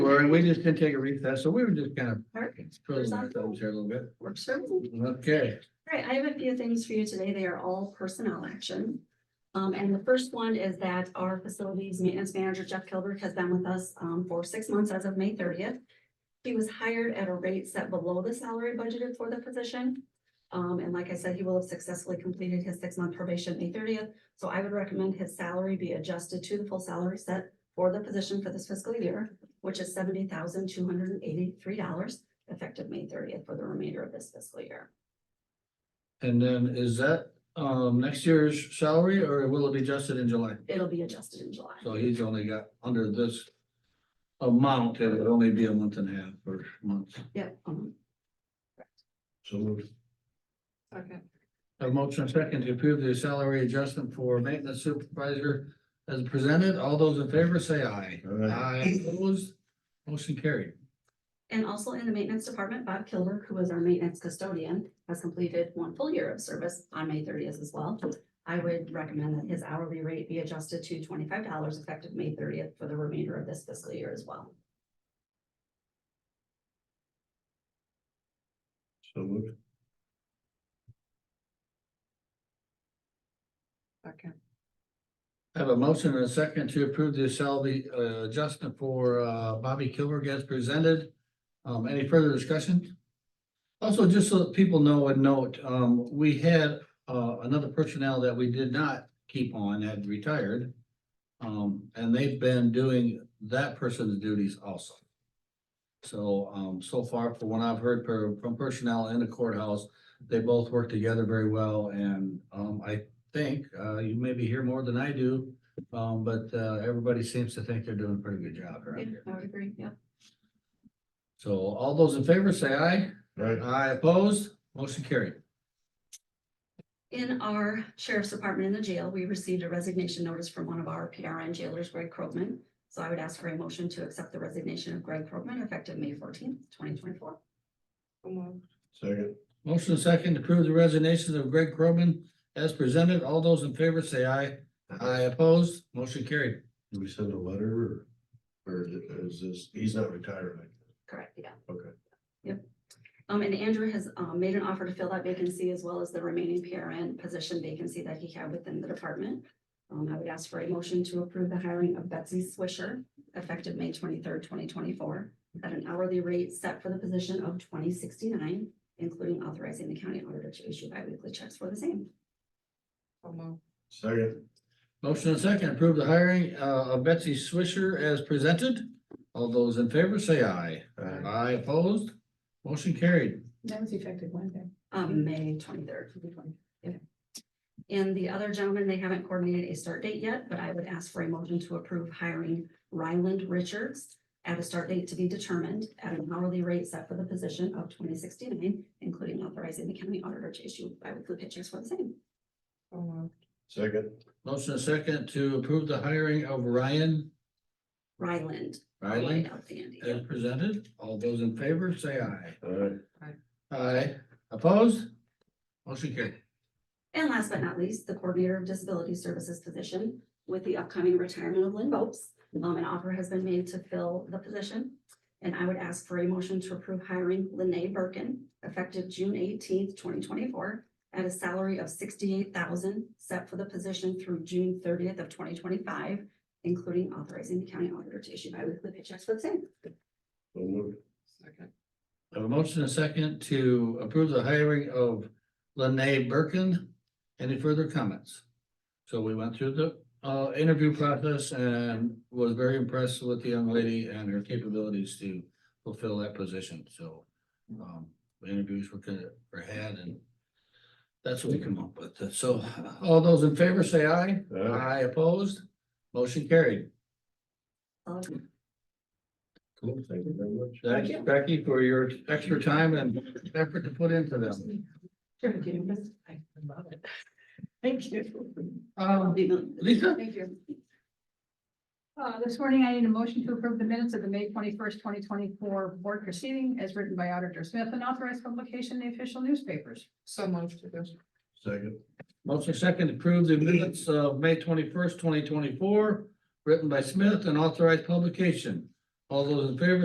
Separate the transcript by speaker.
Speaker 1: sorry, we just didn't take a recess, so we were just kind of
Speaker 2: Perfect.
Speaker 1: twiddling our thumbs here a little bit.
Speaker 2: Works for me.
Speaker 1: Okay,
Speaker 2: All right, I have a few things for you today. They are all personnel action. Um, and the first one is that our facilities maintenance manager Jeff Kilberg has been with us, um, for six months as of May thirtieth. He was hired at a rate set below the salary budgeted for the position. Um, and like I said, he will have successfully completed his six-month probation May thirtieth. So I would recommend his salary be adjusted to the full salary set for the position for this fiscal year, which is seventy thousand two hundred and eighty-three dollars effective May thirtieth for the remainder of this fiscal year.
Speaker 1: and then is that um next year's salary or will it be adjusted in July?
Speaker 2: It'll be adjusted in July.
Speaker 1: So he's only got under this amount, it would only be a month and a half or month.
Speaker 2: Yep. um,
Speaker 1: So moved. Have a motion and second to approve the salary adjustment for maintenance supervisor as presented. All those in favor say aye. Aye. Opposed, motion carried.
Speaker 2: And also in the maintenance department, Bob Kilburg, who was our maintenance custodian, has completed one full year of service on May thirtieth as well. I would recommend that his hourly rate be adjusted to twenty-five dollars effective May thirtieth for the remainder of this fiscal year as well.
Speaker 1: So moved.
Speaker 3: Okay.
Speaker 1: I have a motion and a second to approve the salary uh, adjustment for uh, Bobby Kilberg as presented. Um, any further discussion? Also, just so that people know and note, um, we had uh, another personnel that we did not keep on had retired. Um, and they've been doing that person's duties also. So, um, so far, from what I've heard per- from personnel in the courthouse, they both work together very well and um, I think, uh, you maybe hear more than I do. Um, but, uh, everybody seems to think they're doing a pretty good job around
Speaker 2: Yeah,
Speaker 1: here.
Speaker 2: I would agree, yeah.
Speaker 1: So all those in favor say aye.
Speaker 4: Right.
Speaker 1: Aye opposed, motion carried.
Speaker 2: In our sheriff's department in the jail, we received a resignation notice from one of our PRN jailers, Greg Krogman. So I would ask for a motion to accept the resignation of Greg Krogman effective May fourteenth, twenty twenty-four.
Speaker 4: Second.
Speaker 1: Motion second, to approve the resignation of Greg Croman as presented. All those in favor say aye. Aye opposed, motion carried.
Speaker 4: Do we send a letter or, or is this, he's not retiring?
Speaker 2: Correct, yeah.
Speaker 4: Okay.
Speaker 2: Yep. Um, and Andrew has, um, made an offer to fill that vacancy as well as the remaining PRN position vacancy that he had within the department. Um, I would ask for a motion to approve the hiring of Betsy Swisher effective May twenty-third, twenty twenty-four at an hourly rate set for the position of twenty sixty-nine, including authorizing the county auditor to issue biweekly checks for the same.
Speaker 4: Second.
Speaker 1: Motion second, to approve the hiring uh, of Betsy Swisher as presented. All those in favor say aye.
Speaker 4: Aye.
Speaker 1: Aye opposed, motion carried.
Speaker 3: That was effective Wednesday.
Speaker 2: Um, May twenty-third. And the other gentleman, they haven't coordinated a start date yet, but I would ask for a motion to approve hiring Ryland Richards at a start date to be determined at an hourly rate set for the position of twenty sixty-nine, including authorizing the county auditor to issue biweekly pictures for the same.
Speaker 4: Second.
Speaker 1: Motion second to approve the hiring of Ryan
Speaker 2: Ryland.
Speaker 1: Riley
Speaker 2: Without the Andy.
Speaker 1: as presented. All those in favor say aye.
Speaker 4: Alright.
Speaker 1: Aye opposed, motion carried.
Speaker 2: And last but not least, the coordinator of disability services position with the upcoming retirement of Lynn Bopes. Um, an offer has been made to fill the position. And I would ask for a motion to approve hiring Lynne Birkin effective June eighteenth, twenty twenty-four at a salary of sixty-eight thousand set for the position through June thirtieth of twenty twenty-five, including authorizing the county auditor to issue biweekly paychecks for the same.
Speaker 4: So moved.
Speaker 1: I have a motion and a second to approve the hiring of Lene Birkin. Any further comments? So we went through the uh interview process and was very impressed with the young lady and her capabilities to fulfill that position, so. Um, the interviews were good, were had and that's what we come up with. So all those in favor say aye.
Speaker 4: Alright.
Speaker 1: Aye opposed, motion carried.
Speaker 2: Um,
Speaker 4: Cool. Thank you very much.
Speaker 1: Thanks Becky for your extra time and effort to put into them.
Speaker 3: I love it. Thank you.
Speaker 1: Um, Lisa?
Speaker 3: Thank you.
Speaker 5: Uh, this morning, I need a motion to approve the minutes of the May twenty-first, twenty twenty-four board proceeding as written by Auditor Smith and authorized publication in the official newspapers.
Speaker 3: So moved.
Speaker 4: Second.
Speaker 1: Motion second to approve the minutes of May twenty-first, twenty twenty-four, written by Smith and authorized publication. All those in favor